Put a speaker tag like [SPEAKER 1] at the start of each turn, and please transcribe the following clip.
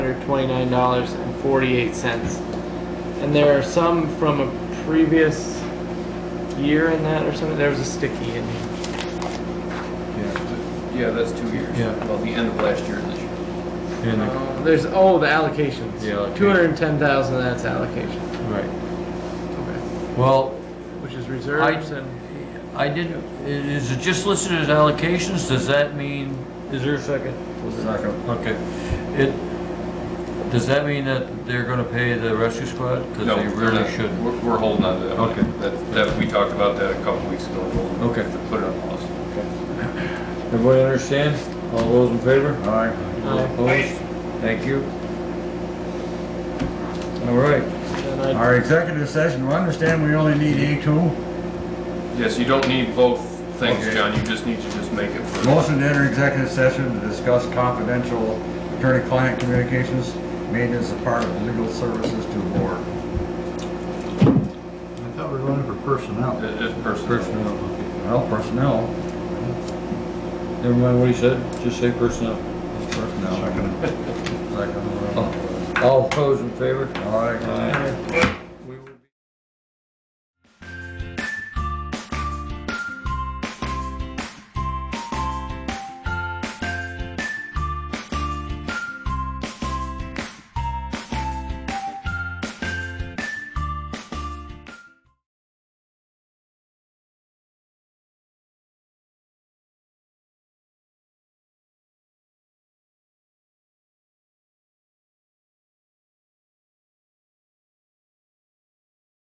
[SPEAKER 1] $1,129.48. And there are some from a previous year in that or something. There was a sticky in here.
[SPEAKER 2] Yeah,
[SPEAKER 3] Yeah, that's two years.
[SPEAKER 2] Yeah.
[SPEAKER 3] Well, the end of last year and this year.
[SPEAKER 2] and, the-
[SPEAKER 1] Um, There's, oh, the allocations.
[SPEAKER 2] The allocation.
[SPEAKER 1] 210,000, that's allocation.
[SPEAKER 2] right.
[SPEAKER 1] Okay.
[SPEAKER 2] Well,
[SPEAKER 1] Which is reserves and.
[SPEAKER 2] I did, is it just listed as allocations? Does that mean, is there a second?
[SPEAKER 3] Second.
[SPEAKER 2] Okay. It, does that mean that they're gonna pay the rescue squad? Because
[SPEAKER 3] No,
[SPEAKER 2] they
[SPEAKER 3] they're
[SPEAKER 2] really
[SPEAKER 3] not.
[SPEAKER 2] shouldn't.
[SPEAKER 3] We're, we're holding on to that.
[SPEAKER 2] Okay.
[SPEAKER 3] That, that, we talked about that a couple weeks ago. We'll
[SPEAKER 2] Okay.
[SPEAKER 3] Put it on pause.
[SPEAKER 2] Everybody understand? All those in favor? Aye.
[SPEAKER 1] Aye.
[SPEAKER 2] Opposed? Thank you. All right.
[SPEAKER 1] and I-
[SPEAKER 4] Our executive session, we understand we only need A2.
[SPEAKER 3] Yes, you don't need both things,
[SPEAKER 4] Okay.
[SPEAKER 3] John. You just need to just make it for.
[SPEAKER 4] Motion to enter executive session to discuss confidential attorney-client communications made as a part of legal services to the board.
[SPEAKER 5] I thought we were running for personnel.
[SPEAKER 3] It- It's personal.
[SPEAKER 2] Personnel.
[SPEAKER 4] Well, personnel,
[SPEAKER 2] Never mind what he said, just say personnel.
[SPEAKER 4] it's personnel. Second.
[SPEAKER 2] All those in favor?
[SPEAKER 4] All right.
[SPEAKER 1] Aye.